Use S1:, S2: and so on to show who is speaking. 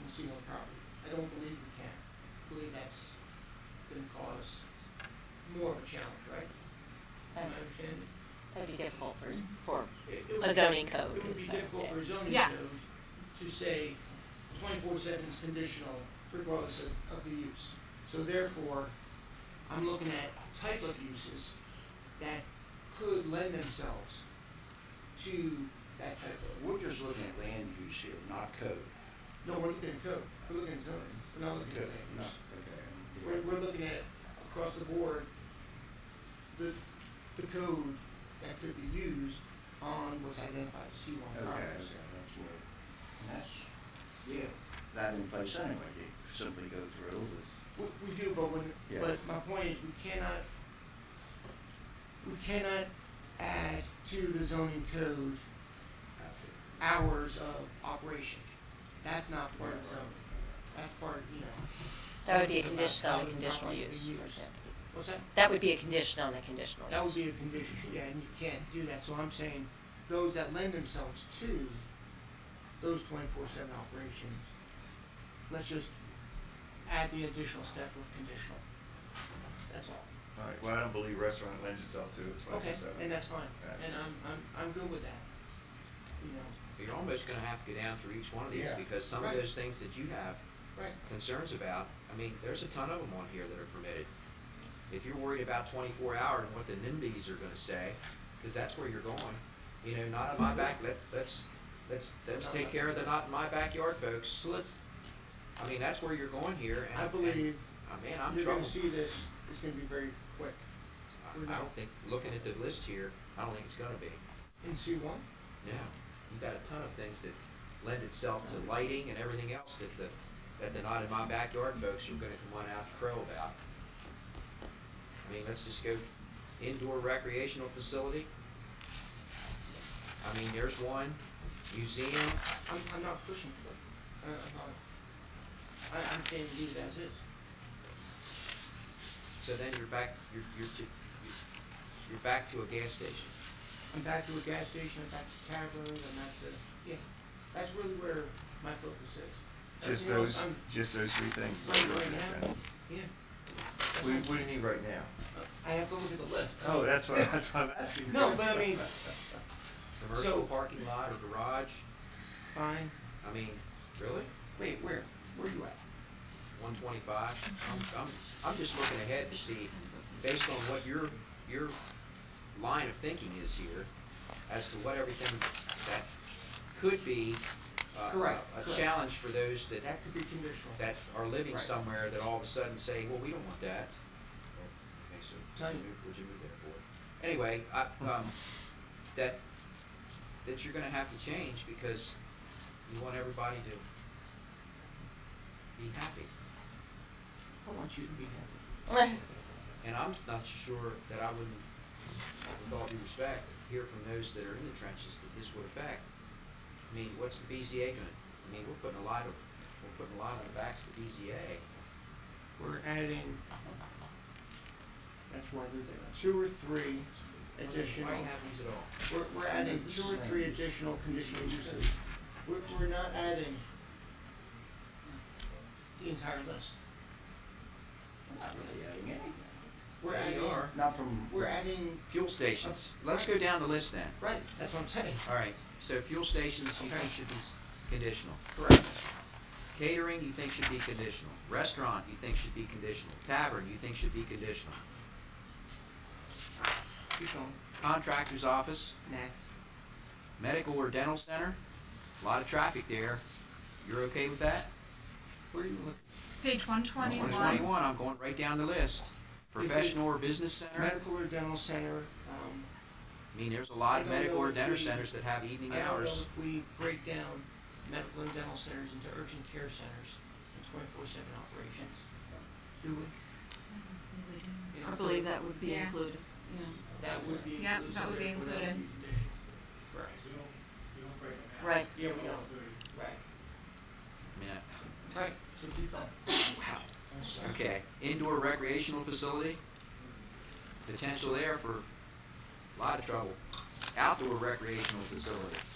S1: conceal a property. I don't believe we can. I believe that's gonna cause more of a challenge, right? Am I understanding?
S2: That'd be difficult for,
S1: Mm-hmm.
S2: for,
S1: It- it
S2: A
S1: would-
S2: zoning code
S1: It would
S2: is
S1: be
S2: better,
S1: difficult
S2: yeah.
S1: for a zoning
S3: Yes.
S1: code to say twenty-four seven is conditional regardless of, of the use. So therefore, I'm looking at type of uses that could lend themselves to that type of,
S4: We're just looking at land use here, not code.
S1: no, we're looking at code, we're looking at zoning, we're not looking at land
S4: No,
S1: use. We're,
S4: okay.
S1: we're looking at across the board, the, the code that could be used on what's identified as C one
S4: Okay, okay,
S1: properties.
S4: that's where, and that's, we have that in place anyway, you simply go through with,
S1: We, we do, but when,
S4: Yeah.
S1: but my point is, we cannot, we cannot add to the zoning code
S4: after.
S1: hours of operation. That's not part of zoning, that's part of, you know.
S2: that would be a
S1: It's about
S2: condition
S1: how
S2: on a
S1: the
S2: conditional
S1: property
S2: use,
S1: is
S2: for
S1: used.
S2: example.
S1: What's that?
S2: That would be a condition on a conditional.
S1: That would
S2: use.
S1: be a condition, yeah, and you can't do that, so I'm saying, those that lend themselves to those twenty-four seven operations, let's just add the additional step of conditional. That's all.
S5: All right, well, I don't believe restaurant lends itself to
S1: Okay,
S5: twenty-four seven.
S1: and that's fine,
S5: Yeah.
S1: and um, I'm, I'm, I'm good with that, you know,
S6: You're almost gonna have to go down through each one of these,
S4: Yeah.
S6: because some of
S1: Right.
S6: those things that you have
S1: right,
S6: concerns about, I mean, there's a ton of them on here that are permitted. If you're worried about twenty-four hour and what the NIMBYs are gonna say, cause that's where you're going, you know, not in my back, let, let's, let's, let's take care of the not in my backyard folks.
S1: so let's,
S6: I mean, that's where you're going here, and,
S1: I
S6: and,
S1: believe
S6: I mean, I'm
S1: you're gonna
S6: troubled.
S1: see this, it's gonna be very quick,
S6: I, I don't think, looking at the list here, I don't think it's gonna be.
S1: in C one,
S6: Yeah, you've got a ton of things that lend itself to lighting and everything else that the, that the not in my backyard folks are gonna come on out and crow about. I mean, let's just go indoor recreational facility. I mean, there's one, museum,
S1: I'm, I'm not pushing for it, I, I'm not, I, I'm saying leave it as is.
S6: so then you're back, you're, you're, to- you're- you're back to a gas station.
S1: I'm back to a gas station, I'm back to taverns, I'm back to, yeah, that's really where my focus is.
S5: Just
S1: Everything else,
S5: those,
S1: I'm-
S5: just those three things.
S1: Right, right now. Yeah,
S5: We, what do you need right now?
S1: I have to look at the list.
S5: Oh, that's what, that's what I'm asking.
S1: No, but I mean,
S6: Commercial
S1: So-
S6: parking lot or garage,
S1: fine,
S6: I mean, really?
S1: wait, where, where you at?
S6: one twenty-five. I'm, I'm, I'm just looking ahead to see, based on what your, your line of thinking is here, as to what everything that could be, uh,
S1: Correct,
S6: a
S1: correct.
S6: challenge for those that,
S1: That could be conditional.
S6: that are living
S1: Right.
S6: somewhere that all of a sudden say, well, we don't want that. Okay, so
S1: Tell
S6: would
S1: you.
S6: you move- would you move that forward? Anyway, I, um, that, that you're gonna have to change because you want everybody to be happy.
S1: I want you to be happy.
S6: And I'm not sure that I wouldn't, with all due respect, hear from those that are in the trenches that this would affect. I mean, what's the BZA gonna, I mean, we're putting a lot of, we're putting a lot on the backs of the BZA.
S1: We're adding, that's why we're there, two or three additional,
S6: Why do you have these at all?
S1: we're, we're adding two or three additional conditional uses. We're, we're not adding the entire list.
S4: I'm not really adding anything,
S1: We're
S6: Yeah,
S1: adding,
S6: you are.
S4: not from.
S1: we're adding,
S6: Fuel stations. Let's go down the list then.
S1: right, that's what I'm saying.
S6: All right, so fuel stations you
S1: Okay.
S6: think should be s- conditional.
S1: Correct.
S6: Catering you think should be conditional. Restaurant you think should be conditional. Tavern you think should be conditional.
S1: Keep going.
S6: Contractor's office,
S1: Nah.
S6: medical or dental center, a lot of traffic there. You're okay with that?
S1: Where are you looking?
S3: Page one twenty-one.
S6: 121, I'm going right down the list. Professional or business center, I
S1: Medical or dental center, um,
S6: mean, there's a
S1: I
S6: lot of
S1: don't
S6: medical
S1: know
S6: or
S1: if
S6: dental
S1: we-
S6: centers that have
S1: I
S6: evening
S1: don't know
S6: hours.
S1: if we break down medical and dental centers into urgent care centers and twenty-four seven operations. Do we? You know,
S7: Mm-hmm. I believe that would be
S3: Yeah.
S7: included, yeah.
S1: That would be
S3: Yeah,
S1: inclusive.
S3: that would be
S1: therefore that would be conditional. Right.
S7: Right.
S1: Yeah, we don't, right,
S6: I mean, I-
S1: right, so keep up. Wow.
S6: Okay, indoor recreational facility, potential there for a lot of trouble. Outdoor recreational facility,